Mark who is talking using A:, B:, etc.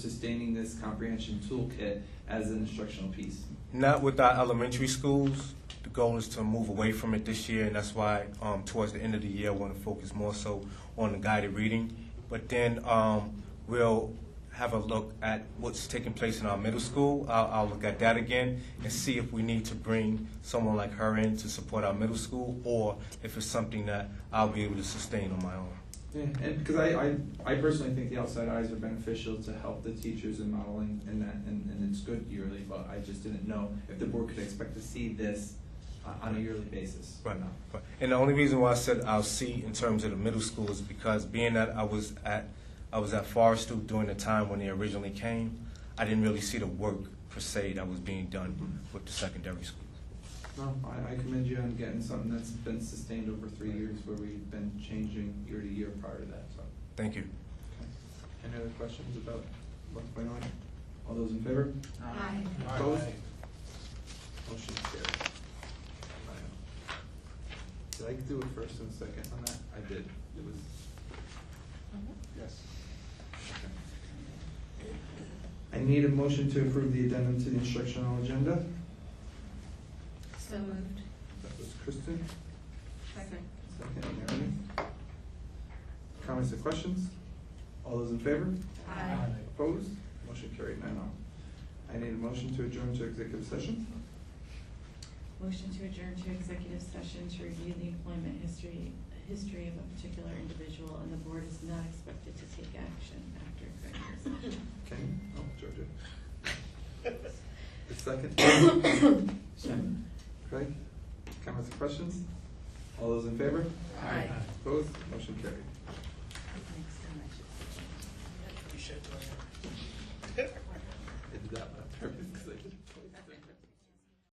A: sustaining this comprehension toolkit as an instructional piece.
B: Not with our elementary schools. The goal is to move away from it this year, and that's why um, towards the end of the year, I want to focus more so on the guided reading. But then um, we'll have a look at what's taking place in our middle school. I'll, I'll look at that again and see if we need to bring someone like her in to support our middle school, or if it's something that I'll be able to sustain on my own.
A: Yeah, and because I, I, I personally think the outside eyes are beneficial to help the teachers in modeling and that, and, and it's good yearly, but I just didn't know if the board could expect to see this uh, on a yearly basis.
B: Right now. Right. And the only reason why I said I'll see in terms of the middle school is because being that I was at I was at Forest Oak during the time when they originally came, I didn't really see the work per se that was being done with the secondary schools.
A: No, I, I commend you on getting something that's been sustained over three years where we've been changing year to year prior to that, so.
B: Thank you.
A: okay. Any other questions about one point one? All those in favor?
C: Aye.
A: Opposed? Motion carried. Did I do a first and second on that? I did. It was.
D: Mm-hmm.
A: Yes. I need a motion to approve the addendum to the instructional agenda.
C: So moved.
A: That was Kristen,
C: Second.
A: second Mary. Comments or questions? All those in favor?
C: Aye.
A: Opposed? Motion carried nine oh. I need a motion to adjourn to executive session.
D: Motion to adjourn to executive session to review the employment history, history of a particular individual, and the board is not expected to take action after executive session.
A: Okay, oh, Georgia. The second. Craig, comments or questions? All those in favor?
C: Aye.
A: Opposed? Motion carried.
D: Thanks so much.
E: You should go ahead.